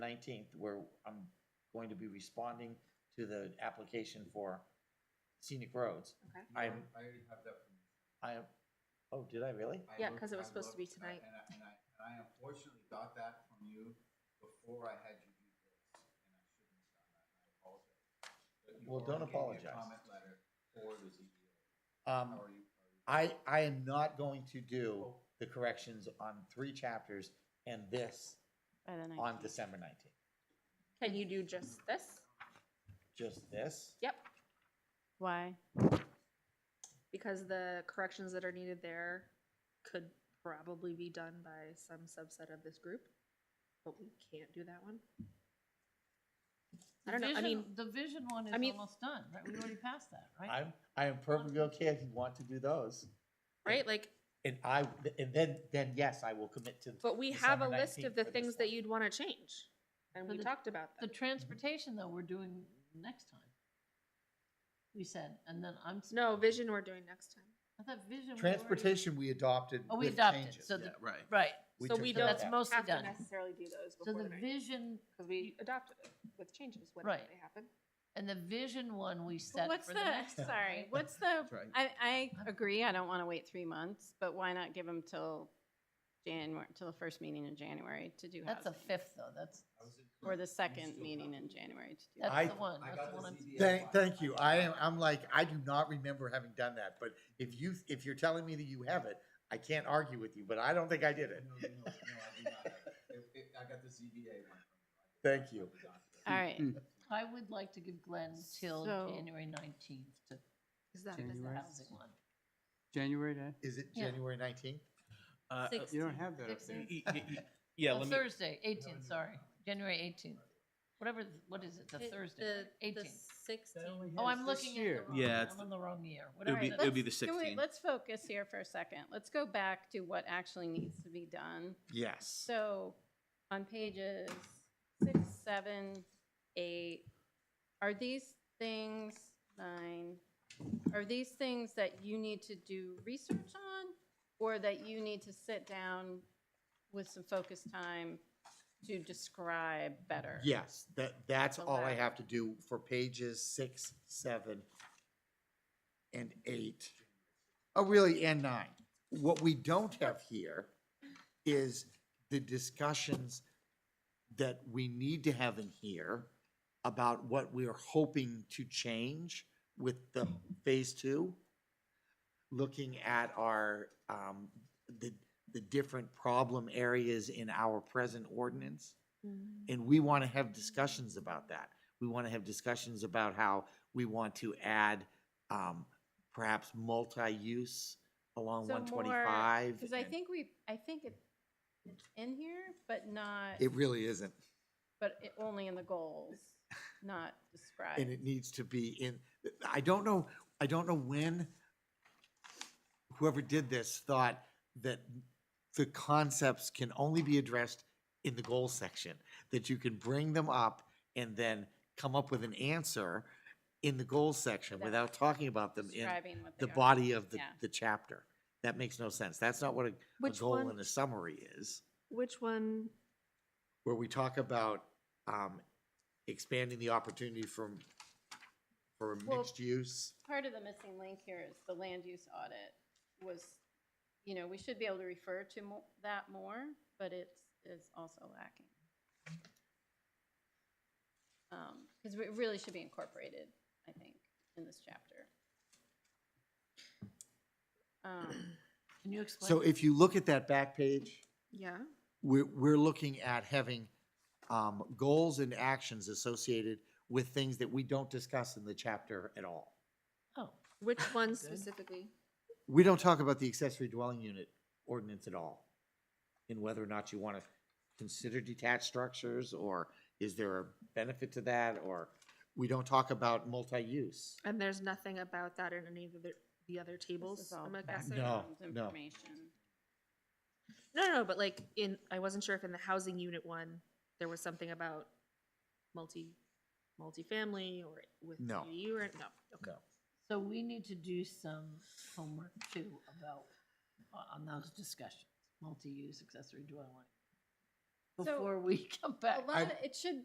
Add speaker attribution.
Speaker 1: nineteenth, where I'm going to be responding to the application for scenic roads.
Speaker 2: Okay.
Speaker 3: No,
Speaker 1: I'm-
Speaker 3: I already have that from.
Speaker 1: I, oh, did I really?
Speaker 3: I
Speaker 2: Yeah,
Speaker 3: looked-
Speaker 2: 'cause it was
Speaker 3: I
Speaker 2: supposed to
Speaker 3: looked,
Speaker 2: be
Speaker 3: and I- And I, and I, and I unfortunately got that from you before I had you do this, and I shouldn't have done that, and I apologize. But you
Speaker 1: Well, don't
Speaker 3: already gave me a
Speaker 1: apologize.
Speaker 3: Comment letter for the ZBA.
Speaker 1: Um,
Speaker 3: How are you? are you-
Speaker 1: I, I am not going to do the corrections on three chapters and this
Speaker 4: By the
Speaker 1: on
Speaker 4: 19th.
Speaker 1: December nineteenth.
Speaker 2: Can you do just this?
Speaker 1: Just this?
Speaker 2: Yep,
Speaker 4: Why?
Speaker 2: because the corrections that are needed there could probably be done by some subset of this group, but we can't do that one. I
Speaker 5: The
Speaker 2: don't know, I
Speaker 5: vision-
Speaker 2: mean-
Speaker 5: The vision one is
Speaker 2: I mean-
Speaker 5: almost done, right? We already passed that, right?
Speaker 1: I'm, I am perfectly okay if you want to do those.
Speaker 2: Right, like,
Speaker 1: And I, and then, then yes, I will commit to,
Speaker 2: but we have a
Speaker 1: December
Speaker 2: list
Speaker 1: 19th
Speaker 2: of the
Speaker 1: for this
Speaker 2: things that
Speaker 1: one.
Speaker 2: you'd wanna change, and
Speaker 5: For
Speaker 2: we
Speaker 5: the-
Speaker 2: talked about
Speaker 5: The
Speaker 2: that.
Speaker 5: transportation, though, we're doing next time. We said, and then I'm, s-
Speaker 2: No, vision we're doing next time.
Speaker 5: I thought vision. we already-
Speaker 1: transportation we adopted
Speaker 5: Oh, we
Speaker 1: with
Speaker 5: adopted,
Speaker 1: changes.
Speaker 5: so the- Yeah,
Speaker 3: right.
Speaker 5: Right,
Speaker 2: so
Speaker 1: took
Speaker 2: we
Speaker 1: care of
Speaker 2: don't
Speaker 5: that's
Speaker 1: that.
Speaker 5: mostly
Speaker 2: Have to
Speaker 5: done.
Speaker 2: necessarily do those
Speaker 5: So
Speaker 2: before
Speaker 5: the
Speaker 2: the night,
Speaker 5: vision,
Speaker 2: because we adopted it with changes when
Speaker 5: Right.
Speaker 2: they happen.
Speaker 5: and the vision one we
Speaker 4: But
Speaker 5: set
Speaker 4: What's
Speaker 5: for the next.
Speaker 4: the,
Speaker 5: time,
Speaker 4: sorry,
Speaker 5: right?
Speaker 4: what's the,
Speaker 3: That's right.
Speaker 4: I, I agree, I don't want to wait three months, but why not give them till January, till the first meeting in January to do
Speaker 5: That's a
Speaker 4: housing?
Speaker 5: fifth, though, that's,
Speaker 3: I was in-
Speaker 4: Or the
Speaker 3: you
Speaker 4: second
Speaker 3: still
Speaker 4: meeting
Speaker 3: have
Speaker 4: in
Speaker 3: to-
Speaker 4: January to do.
Speaker 1: I-
Speaker 5: that's the one,
Speaker 3: I
Speaker 5: that's
Speaker 3: got
Speaker 5: the
Speaker 3: the
Speaker 5: one. on-
Speaker 3: ZBA.
Speaker 1: Thank,
Speaker 3: one.
Speaker 1: thank you. I am, I'm like, I do not remember having done that, but if you, if you're telling me that you have it, I can't argue with you, but I don't think I did it.
Speaker 3: No, no, no, no, I do not. It- it- I got the ZBA one. from you. I
Speaker 1: Thank
Speaker 3: got
Speaker 1: you.
Speaker 3: the document.
Speaker 4: All right.
Speaker 5: I would like to give Glenn till
Speaker 4: So-
Speaker 5: January nineteenth to
Speaker 2: Is that,
Speaker 5: fix the
Speaker 6: January?
Speaker 5: housing one.
Speaker 6: January, day?
Speaker 1: Is it
Speaker 5: Yeah.
Speaker 1: January nineteenth?
Speaker 7: Uh, uh,
Speaker 6: you don't have that up there.
Speaker 5: Sixteenth.
Speaker 7: y- y- y- Yeah,
Speaker 5: Oh,
Speaker 7: let me,
Speaker 5: Thursday, eighteenth, sorry, January eighteenth. Whatever, th- what is it, the Thursday, eighteenth? Oh, I'm looking at the wrong,
Speaker 7: Yeah,
Speaker 5: one.
Speaker 7: it's
Speaker 5: I'm on the wrong year.
Speaker 7: it'll
Speaker 5: Whatever
Speaker 7: be,
Speaker 5: the-
Speaker 7: it'll be the
Speaker 4: Can we-
Speaker 7: 16th.
Speaker 4: Let's focus here for a second, let's go back to what actually needs to be done.
Speaker 1: Yes.
Speaker 4: So on pages six, seven, eight, are these things, nine, are these things that you need to do research on? Or that you need to sit down with some focus time to describe better?
Speaker 1: Yes, that, that's
Speaker 4: The
Speaker 1: all I
Speaker 4: latter.
Speaker 1: have to do for pages six, seven, and eight. Oh, really, and nine. What we don't have here is the discussions that we need to have in here about what we are hoping to change with the phase two. Looking at our, um, the, the different problem areas in our present ordinance. And we want to have discussions about that. We want to have discussions about how we want to add um, perhaps multi-use along
Speaker 4: So more-
Speaker 1: one twenty-five.
Speaker 4: Because I think we, I think it- it's in here, but not,
Speaker 1: It really isn't,
Speaker 4: but it- only in the goals, not described.
Speaker 1: and it needs to be in, I don't know, I don't know when whoever did this thought that the concepts can only be addressed in the goal section, that you can bring them up and then come up with an answer in the goal section
Speaker 4: Without
Speaker 1: without talking about them in
Speaker 4: Describing what they
Speaker 1: the
Speaker 4: are.
Speaker 1: body of the,
Speaker 4: Yeah.
Speaker 1: the chapter. That makes no sense. That's not what a, a
Speaker 2: Which
Speaker 1: goal
Speaker 2: one-
Speaker 1: and a summary is,
Speaker 2: which one
Speaker 1: where we talk about, um, expanding the opportunity from, for
Speaker 4: Well-
Speaker 1: mixed use.
Speaker 4: part of the missing link here is the land use audit was, you know, we should be able to refer to mo- that more, but it's, is also lacking. Um, cause it really should be incorporated, I think, in this chapter. Um,
Speaker 5: Can you explain?
Speaker 1: So if you look at that back page,
Speaker 2: Yeah.
Speaker 1: we're, we're looking at having, um, goals and actions associated with things that we don't discuss in the chapter at all.
Speaker 5: Oh.
Speaker 2: Which one
Speaker 5: Good.
Speaker 2: specifically?
Speaker 1: We don't talk about the accessory dwelling unit ordinance at all, and whether or not you want to consider detached structures, or is there a benefit to that, or we don't talk about multi-use.
Speaker 2: And there's nothing about that in any of the, the other
Speaker 4: this
Speaker 2: tables,
Speaker 4: is all
Speaker 2: I'm guessing? No,
Speaker 4: background
Speaker 1: no.
Speaker 4: Information.
Speaker 2: no, but like in, I wasn't sure if in the housing unit one, there was something about multi, multifamily or with
Speaker 1: No.
Speaker 2: you or, no, okay.
Speaker 1: No.
Speaker 5: So we need to do some homework too uh, about, on those discussions, multi-use accessory dwelling.
Speaker 4: So-
Speaker 5: before we come back.
Speaker 4: A lot, of- it should